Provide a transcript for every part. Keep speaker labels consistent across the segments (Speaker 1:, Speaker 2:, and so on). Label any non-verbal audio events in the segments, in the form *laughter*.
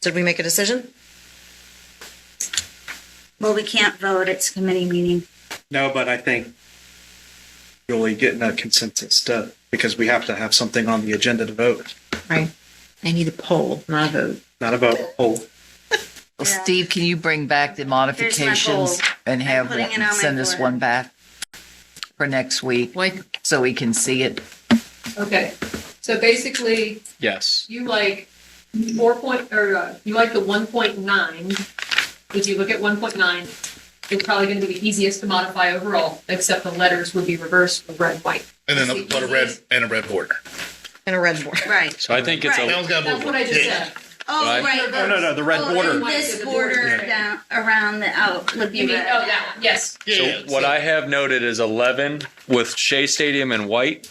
Speaker 1: Did we make a decision?
Speaker 2: Well, we can't vote, it's a committee meeting.
Speaker 3: No, but I think really getting a consensus to, because we have to have something on the agenda to vote,
Speaker 1: Right. I need a poll, not a vote.
Speaker 3: not about a poll.
Speaker 4: Well,
Speaker 2: Yeah.
Speaker 4: Steve, can you bring back the modifications
Speaker 2: poll.
Speaker 4: and have
Speaker 2: putting it on my
Speaker 4: one, send us
Speaker 2: board.
Speaker 4: one back for next week
Speaker 5: Like,
Speaker 4: so we can see it?
Speaker 5: okay, so basically,
Speaker 3: Yes.
Speaker 5: you like four point, or uh, you like the one point nine. If you look at one point nine, it's probably gonna be the easiest to modify overall, except the letters would be reversed or red, white.
Speaker 6: And then a, but a red and a red border.
Speaker 1: And a red board.
Speaker 2: Right.
Speaker 7: So I think it's
Speaker 6: That
Speaker 7: a,
Speaker 6: one's got a border.
Speaker 5: That's what I just
Speaker 6: Yeah.
Speaker 5: said.
Speaker 2: Oh,
Speaker 7: Right.
Speaker 2: right.
Speaker 3: No, no, no, the red
Speaker 2: Oh,
Speaker 3: border.
Speaker 2: This border down, around the out would be
Speaker 5: You mean,
Speaker 2: red.
Speaker 5: oh, that one, yes.
Speaker 6: Yeah, yeah.
Speaker 7: so what I have noted is 11 with Shea Stadium in white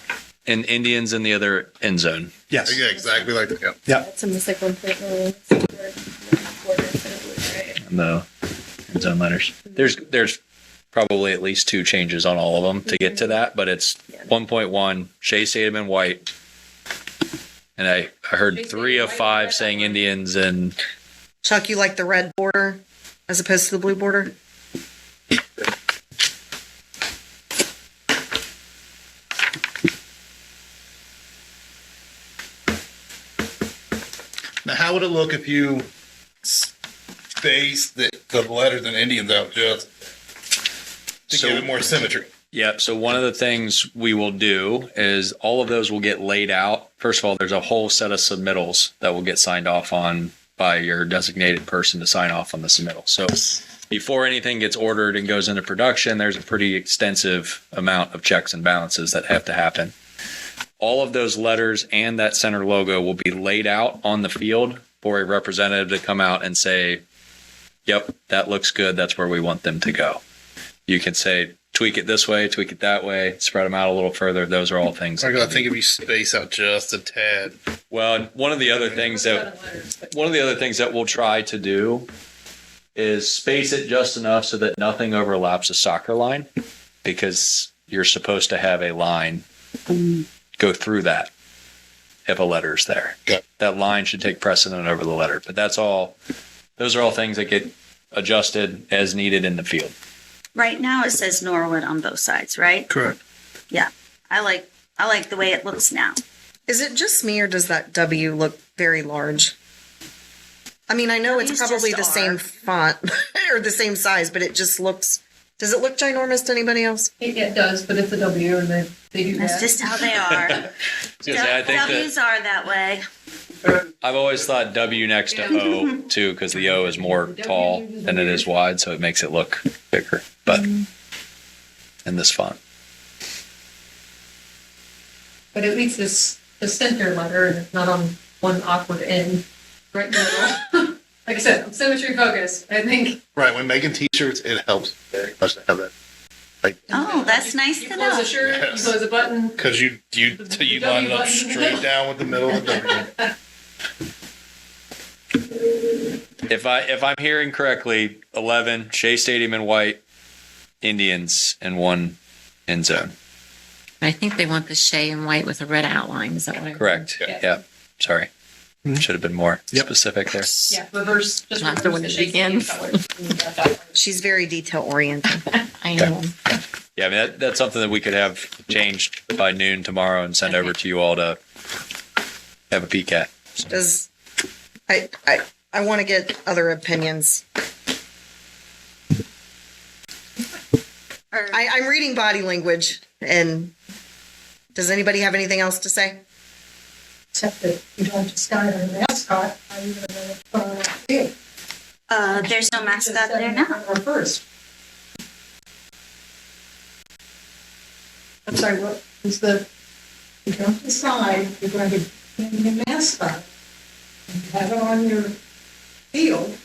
Speaker 7: and Indians in the other end zone.
Speaker 3: Yes.
Speaker 6: Yeah, exactly like that. Yeah.
Speaker 8: That's a mistake one point oh nine. Right.
Speaker 7: And the end zone letters. There's, there's probably at least two changes on all of them to get to that, but it's 1.1 Shea Stadium in white. And I, I heard three of five saying Indians and
Speaker 1: *laughs* Chuck, you like the red border as opposed to the blue border?
Speaker 6: Now, how would it look if you spaced the, the letters and Indians out just to
Speaker 7: So-
Speaker 6: give it more symmetry?
Speaker 7: Yep. So one of the things we will do is all of those will get laid out. First of all, there's a whole set of submittals that will get signed off on by your designated person to sign off on the submittal. So before anything gets ordered and goes into production, there's a pretty extensive amount of checks and balances that have to happen. All of those letters and that center logo will be laid out on the field for a representative to come out and say, yep, that looks good. That's where we want them to go you can say tweak it this way, tweak it that way, spread them out a little further. Those are all things.
Speaker 6: I gotta think if you space out just a tad.
Speaker 7: Well, and one of the other things that one of the other things that we'll try to do is space it just enough so that nothing overlaps a soccer line because you're supposed to have a line go through that if a letter is there.
Speaker 6: Okay.
Speaker 7: That line should take precedent over the letter. But that's all those are all things that get adjusted as needed in the field.
Speaker 2: Right now it says Norwood on both sides, right?
Speaker 3: Correct.
Speaker 2: Yeah. I like, I like the way it looks now.
Speaker 1: Is it just me or does that W look very large? I mean, I know it's
Speaker 2: W's just
Speaker 1: probably the
Speaker 2: are.
Speaker 1: same font *laughs* or the same size, but it just looks. Does it look ginormous to anybody else?
Speaker 5: It, it does, but it's a W and they, they do
Speaker 2: That's
Speaker 5: that.
Speaker 2: just how they are.
Speaker 7: I was gonna say, I think that-
Speaker 2: W's are that way.
Speaker 7: I've always thought W next to O too, because the O is more tall than it is wide, so it makes it look bigger. But in this font,
Speaker 5: But at least it's the center letter and it's not on one awkward end, right in the middle. *laughs* Like I said, I'm symmetry focused, I think.
Speaker 6: Right, when making t-shirts, it helps very much to have that.
Speaker 2: Oh, that's nice
Speaker 5: You
Speaker 2: to
Speaker 5: close
Speaker 2: know.
Speaker 5: a shirt, you
Speaker 6: Yes.
Speaker 5: close a button,
Speaker 6: Cause you, you,
Speaker 5: The W
Speaker 6: you line it up
Speaker 5: button.
Speaker 6: straight down with the middle
Speaker 5: *laughs*
Speaker 6: of the W.
Speaker 7: if I if I'm hearing correctly, eleven Shea Stadium in white, Indians in one end zone.
Speaker 9: I think they want the Shea and white with a red outline. Is that what I heard?
Speaker 7: Correct.
Speaker 6: Yeah.
Speaker 7: Yeah. Sorry, should have been more specific there.
Speaker 5: yeah, reverse. just
Speaker 9: Not the
Speaker 5: reverse
Speaker 9: one that
Speaker 5: shape
Speaker 9: begins.
Speaker 5: color. Yeah.
Speaker 1: She's very detail oriented.
Speaker 9: I know.
Speaker 7: Yeah, I mean that, that's something that we could have changed by noon tomorrow and send over to you all to have a peek at.
Speaker 1: *laughs* Does I I I want to get other opinions.
Speaker 2: Or-
Speaker 1: I, I'm reading body language, and does anybody have anything else to say?
Speaker 10: except that you don't just start on the mascot. Are you going to big?
Speaker 2: Uh, there's no mascot there now.
Speaker 10: First. I'm sorry, what is the, you don't decide you're going to name your mascot. You have it on your field.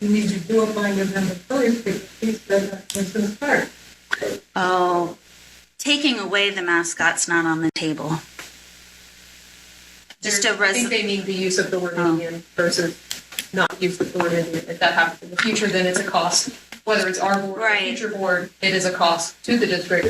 Speaker 10: You need to do it by November first, because he's the, he's the start.
Speaker 2: Oh, taking away the mascot's not on the table. Just a
Speaker 5: I
Speaker 2: res,
Speaker 5: think they mean the use of the word
Speaker 2: Oh.
Speaker 5: Indian versus not use of the word Indian. If that happens in the future, then it's a cost. Whether it's our board or a
Speaker 2: Right.
Speaker 5: future board, it is a cost to the district